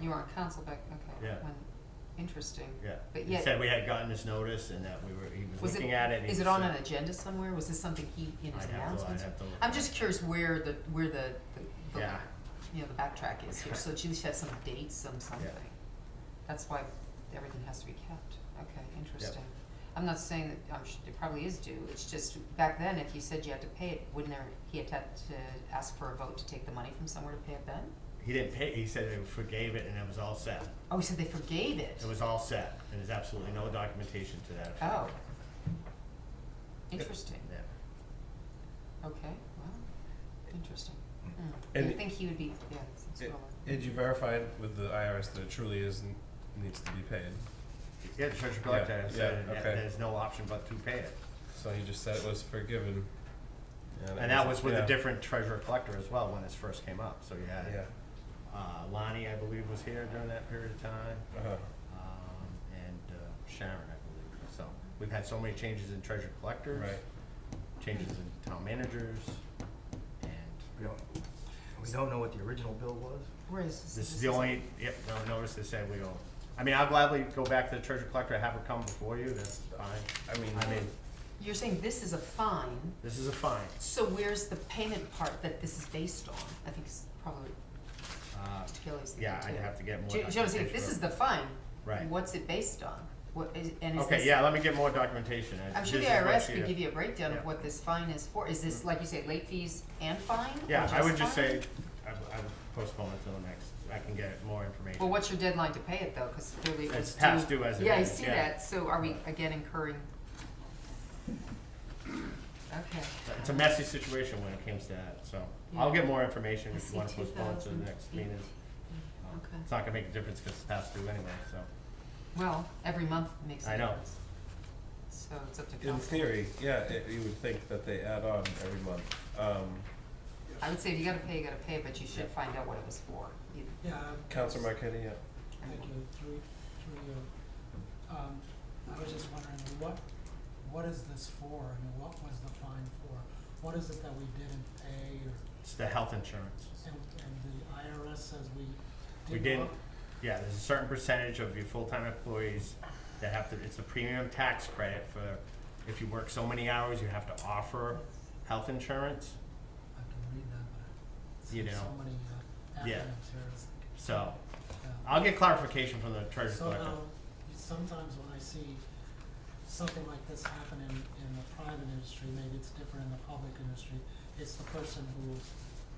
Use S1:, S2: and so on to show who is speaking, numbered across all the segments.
S1: You were on council back, okay.
S2: Yeah.
S1: when- Interesting.
S2: Yeah.
S1: But
S2: He
S1: yet,
S2: said we had gotten this notice and that we were, he was
S1: was it,
S2: looking at it. and
S1: is
S2: he
S1: it on
S2: said-
S1: an agenda somewhere? Was this something he, in his
S2: I'd have to- I'd
S1: announcements?
S2: have to look
S1: am
S2: at
S1: just
S2: it.
S1: curious where the, where the, the- the,
S2: Yeah.
S1: you know, the backtrack is here. So at least has some dates, some something. That's why everything has to be kept. Okay, interesting. I'm not saying that, I'm su it probably is due. It's just, back then, if you said you had to pay it, wouldn't there, he had to to ask for a vote to take the money from somewhere to pay it then?
S2: He didn't pay, he said they forgave it and it was all set.
S1: Oh, he said they forgave it?
S2: It was all set and there's absolutely no documentation to that effect.
S1: Oh. Interesting.
S2: Yeah.
S1: Okay, well, interesting. Mm.
S3: And
S1: You'd
S3: it-
S1: think he would be, yeah, it's- it's
S3: It-
S1: well-
S3: And you verified with the IRS that it truly is n- needs to be paid.
S2: Yeah, the treasurer collector
S3: Yeah,
S2: said
S3: yeah,
S2: that
S3: okay.
S2: there's no option but to pay it.
S3: So he just said it was forgiven.
S2: And that was with a
S3: yeah.
S2: different treasurer collector as well when this first came up. So you
S3: Yeah.
S2: had, uh, Lonnie, I believe, was here during that period of time.
S3: Uh-huh.
S2: um, and uh, Sharon, I believe. So we've had so many changes in treasure collectors,
S3: Right.
S2: changes in town managers, and
S4: We don't, we don't know what the original bill was?
S1: Where is this?
S2: this is the only, yep, no, notice they said we don't. I mean, I'll gladly go back to the treasure collector, have her come before you, that's fine.
S3: I mean,
S2: I mean,
S1: You're saying this is a fine,
S2: this is a fine.
S1: so where's the payment part that this is based on? I think it's probably
S2: Uh,
S1: Kelly's thinking too.
S2: Yeah, I'd have to get more
S1: Do you do you know what I'm saying?
S2: documentation.
S1: If this is the fine,
S2: Right.
S1: what's it based on? What is, and is this?
S2: Okay, yeah, let me get more documentation. I-
S1: I'm sure the
S2: this is what
S1: IRS
S2: she-
S1: could give you a breakdown
S2: Yeah. Mm.
S1: of what this fine is for. Is this, like you say, late fees and fine? or
S2: Yeah, I would just
S1: fine?
S2: say, I would I would postpone it till the next, I can get more information.
S1: Well, what's your deadline to pay it though? Because clearly it
S2: It's
S1: was
S2: past due as it
S1: Yeah, I
S2: is,
S1: see
S2: yeah.
S1: that. So are we again incurring? Okay.
S2: It's a messy situation when it comes to that, so I'll get more information if you wanna postpone it to the next meeting. Um,
S1: Okay.
S2: It's not gonna make a difference because it's passed through anyway, so,
S1: Well, every month makes a
S2: I know.
S1: difference. So it's up to
S3: in
S1: council.
S3: theory, yeah, it, you would think that they add on every month. Um,
S1: I would say if you gotta pay, you gotta pay, but you should
S2: Yeah.
S1: find out what it was for. You-
S5: Yeah. um,
S3: Councilor Marquetti, yeah.
S5: Thank you, through, through you. Um, I was just wondering, what, what is this for? I mean, what was the fine for? What is it that we didn't pay or,
S2: it's the health insurance.
S5: and, and the IRS says we didn't?
S2: We didn't,
S5: up-
S2: yeah, there's a certain percentage of your full-time employees that have to, it's a premium tax credit for, if you work so many hours, you have to offer health insurance,
S5: I can read that, but
S2: You
S5: I see so
S2: know.
S5: many uh, acronyms
S2: Yeah.
S5: here. It's- uh,
S2: so
S5: yeah.
S2: I'll get clarification from the treasurer
S5: So um,
S2: collector.
S5: now, sometimes when I see something like this happen in, in the private industry, maybe it's different in the public industry, it's the person who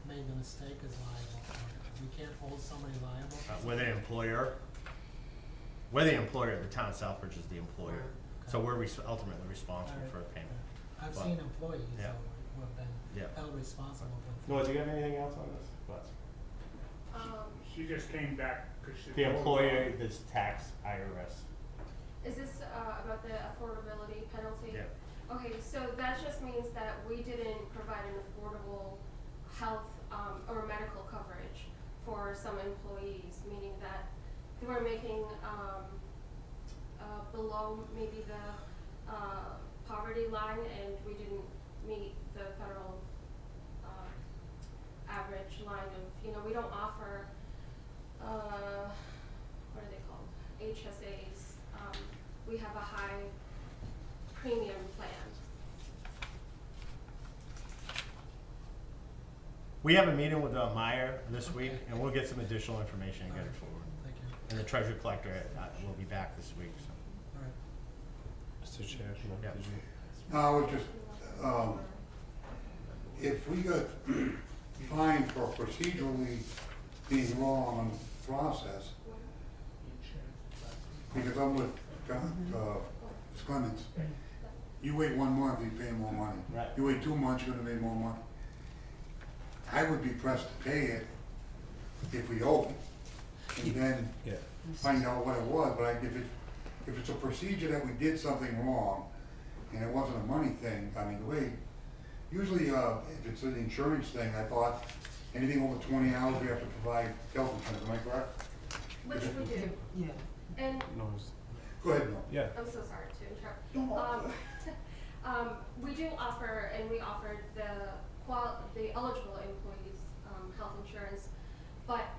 S5: made the mistake is liable for it. We can't hold somebody liable.
S2: uh, we're the employer. We're the employer, the town of Southbridge is the employer, so we're res- ultimately responsible for a payment.
S5: I've
S2: but-
S5: seen employees who
S2: Yeah.
S5: who have
S2: Yeah.
S5: been held responsible with.
S2: Noah, do you have anything else on this? What?
S6: Um,
S7: She just came back because she.
S2: The employer, this tax, IRS.
S6: is this, uh, about the affordability penalty?
S2: Yeah.
S6: Okay, so that just means that we didn't provide an affordable health, um, or medical coverage for some employees, meaning that they were making, um, uh, below maybe the, uh, poverty line and we didn't meet the federal, um, average line of, you know, we don't offer, uh, what are they called? HSAs. Um, we have a high premium plan.
S2: We have a meeting with uh, Meyer this week,
S5: Okay.
S2: and we'll get some additional information and get it forward.
S5: Thank you,
S2: And the treasurer collector uh, will be back this week, so.
S5: all right.
S3: Mr. Chair, no,
S2: Yeah.
S3: did you?
S8: No, I was just, um, if we got fined for procedurally being wrong on process, because I'm with, Con- uh, Ms. Clemens, you wait one month, you pay more money.
S2: Right.
S8: You wait two months, you're gonna pay more money. I would be pressed to pay it if we owe it, and then
S3: Yeah.
S8: find out what it was, but I, if it, if it's a procedure that we did something wrong, and it wasn't a money thing, I mean, we, usually, uh, if it's an insurance thing, I thought, anything over twenty hours, we have to provide health insurance, am I correct?
S6: Which we do.
S1: Yeah.
S6: And
S3: No, it was-
S8: Go ahead, Bill.
S3: yeah.
S6: I'm so sorry to interrupt. Um, um, we do offer, and we offered the qual, the eligible employees, um, health insurance, but